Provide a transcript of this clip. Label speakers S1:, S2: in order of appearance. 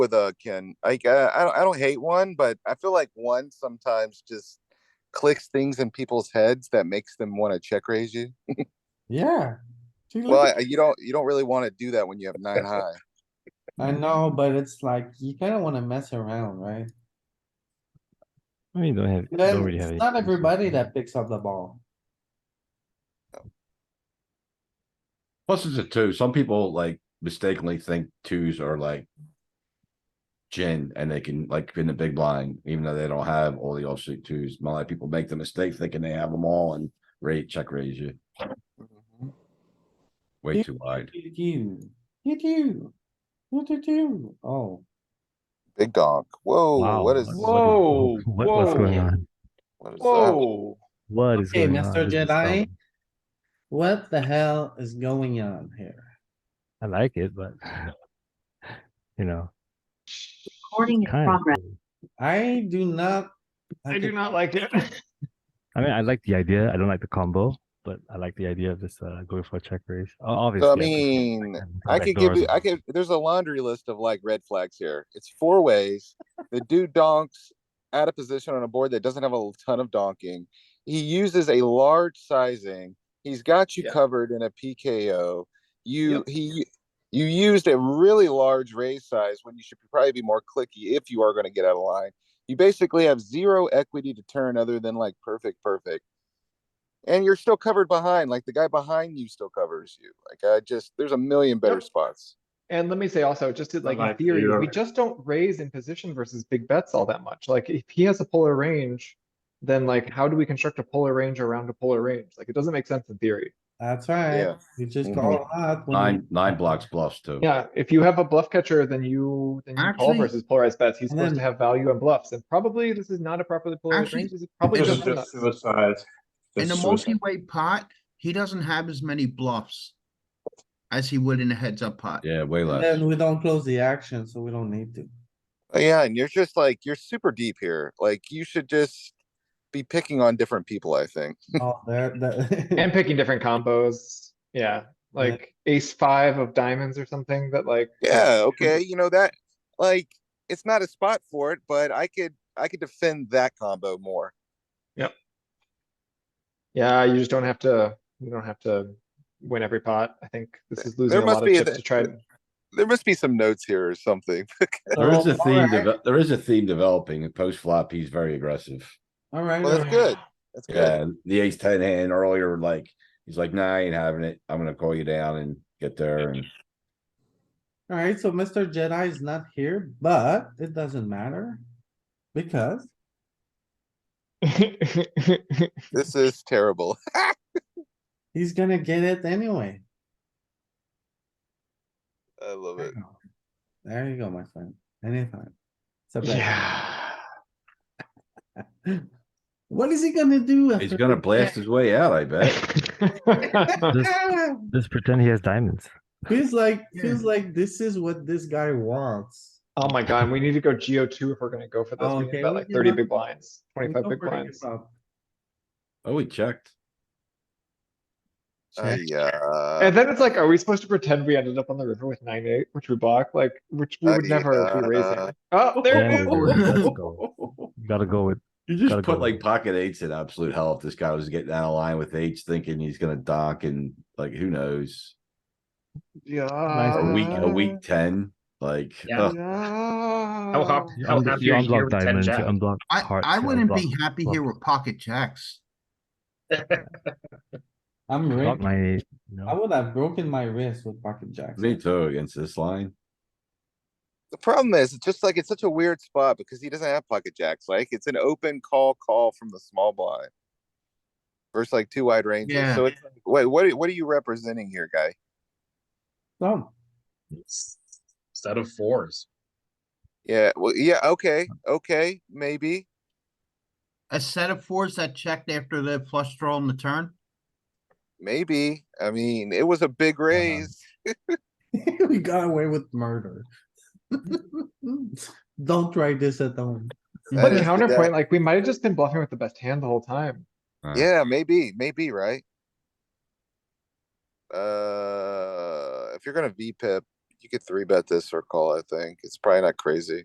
S1: with a can like uh, I don't I don't hate one, but I feel like one sometimes just clicks things in people's heads that makes them want to check raise you.
S2: Yeah. See, look
S1: Well,
S2: at-
S1: I- you don't you don't really want to do that when you have nine high.
S2: I know, but it's like, you kinda wanna mess around, right?
S3: I mean, don't have, don't
S2: Then
S3: really have.
S2: it's
S3: any
S2: not
S3: hands like
S2: everybody that picks up the ball.
S4: Plus it's a two. Some people like mistakenly think twos are like. Gin and they can like in the big blind, even though they don't have all the offsuit twos. A lot of people make the mistake thinking they have them all and rate check raise you way too wide.
S2: You do, you do, you do, do, oh,
S1: Big donk. Whoa,
S3: Wow,
S1: what is
S3: what
S5: Whoa,
S3: what- What's going
S5: whoa.
S3: on?
S1: what is that?
S5: Whoa,
S3: What is
S2: Okay,
S3: going on?
S2: Mr.
S3: This is
S2: Jedi.
S3: dumb.
S2: what the hell is going on here?
S3: I like it, but. You know.
S6: Recording in
S3: kind of
S6: progress.
S3: cool.
S2: I do not.
S5: I do
S2: think-
S5: not like it.
S3: I mean, I like the idea. I don't like the combo, but I like the idea of just uh, going for a check raise. O- Obviously.
S1: So I
S3: prefer
S1: mean,
S3: that than
S1: I
S3: back
S1: could
S3: door
S1: give you
S3: as
S1: I
S3: well.
S1: could there's a laundry list of like red flags here. It's four ways. The dude donks at a position on a board that doesn't have a ton of donking. He uses a large sizing. He's got you
S5: Yeah.
S1: covered in a PKO. You he you used a really large raise size when you should probably be more clicky if you are going to get out of line. You basically have zero equity to turn other than like perfect, perfect. And you're still covered behind, like the guy behind you still covers you. Like I just, there's a million better
S7: Yep.
S1: spots.
S7: And let me say also, just in, like
S5: my
S7: in theory, we
S5: favorite.
S7: just don't raise in position versus big bets all that much. Like if he has a polar range, then like how do we construct a polar range around a polar range? Like it doesn't make sense in theory.
S2: That's right,
S1: Yeah.
S2: you just
S1: Mhm.
S2: call out. when you-
S4: Nine, nine blocks bluffs too.
S7: Yeah, if you have a bluff catcher, then you then you call
S8: Actually-
S7: versus polarized bets. He's
S2: And
S7: supposed to
S2: then-
S7: have value and bluffs, and probably this is not a properly polarized
S8: Actually,
S7: range. This is probably
S8: this is
S7: just
S8: just
S7: nuts.
S8: In a multi-way pot, he doesn't have as many bluffs as he would in a heads-up pot.
S4: Yeah, way
S2: and
S4: less.
S2: Then we don't close the action, so we don't need to.
S1: Oh, Yeah, and you're just like, you're super deep here. Like you should just be picking on different people, I think.
S2: Oh, there,
S7: and
S2: the.
S7: picking different combos. Yeah, like ace five of diamonds or something that like.
S1: Yeah, okay, you know that, like, it's not a spot for it, but I could, I could defend that combo more.
S7: Yeah, you just don't have to, you don't have to win every pot. I think this is losing
S1: There
S7: a
S1: must
S7: lot of
S1: be a
S7: chips
S1: th-
S7: to try. to-
S1: There must be some notes here or something.
S4: There is a theme,
S2: Alright,
S4: deve- there is a theme developing. Post flop, he's very aggressive.
S2: Alright,
S1: Well, that's
S2: alright.
S1: good. That's good.
S4: Yeah, the ace ten hand earlier, like, he's like, nah, I ain't having it. I'm gonna call you down and get there and.
S2: Alright, so Mr. Jedi is not here, but it doesn't matter. Because
S1: This is terrible.
S2: he's gonna get it anyway.
S1: I love it.
S2: There you go, my friend. Anytime. It's a bet.
S7: Yeah.
S2: What is he gonna do?
S4: He's
S2: after
S4: gonna
S2: this?
S4: blast his way out, I bet.
S3: Just pretend he has diamonds.
S2: Feels like, feels like this is what this guy wants.
S7: Oh my god, we need to go Geo two if we're gonna go for this.
S2: Oh,
S7: We need
S2: okay,
S7: about
S2: we
S7: like
S2: can
S7: thirty
S2: not-
S7: big blinds,
S2: We
S7: twenty-five
S2: know
S7: big
S2: where he
S7: blinds.
S2: is up.
S4: Oh, he checked.
S1: Uh, Yeah.
S7: And then it's like, are we supposed to pretend we ended up on the river with nine eight, which we block, like, which we
S1: Uh,
S7: would never
S1: yeah.
S7: be raising? Oh, there
S3: Yeah,
S7: it
S3: we're-
S7: is.
S3: let's go. Gotta go with,
S4: You
S3: Gotta
S4: just
S3: go.
S4: put like pocket eights in absolute hell if this guy was getting out of line with eights thinking he's gonna dock and like, who knows? A week, a
S7: Yeah.
S4: week ten, like,
S5: Yeah.
S4: ugh,
S7: No.
S5: hop-
S3: you
S5: How
S3: unblock
S5: happy
S3: you
S5: are you
S3: unblock
S5: with 10
S3: diamonds, you
S5: jacks?
S3: unblock
S8: I,
S3: hearts.
S8: I
S3: you
S8: wouldn't
S3: unblock-
S8: be happy here with pocket jacks.
S2: I'm
S3: unblock
S2: rigged.
S3: nine eight, you know?
S2: I would have broken my wrist with pocket jacks.
S4: me too against this line.
S1: The problem is, it's just like, it's such a weird spot because he doesn't have pocket jacks. Like, it's an open call, call from the small blind. Versus like two wide ranges.
S8: Yeah.
S1: So it's, like, wait, what, are- what are you representing here, guy?
S2: Dumb.
S5: Instead of fours.
S1: Yeah, well, yeah, okay, okay, maybe.
S8: A set of fours that checked after the flush draw on the turn.
S1: Maybe. I mean, it was a big raise.
S2: We got away with murder. Don't try this at home.
S1: That is
S7: But
S1: the
S7: counterpoint,
S1: guy.
S7: like, we might have just been bluffing with the best hand the whole time.
S4: Uh,
S1: Yeah, maybe, maybe, right? Uh, if you're gonna V pip, you could three bet this or call, I think. It's probably not crazy.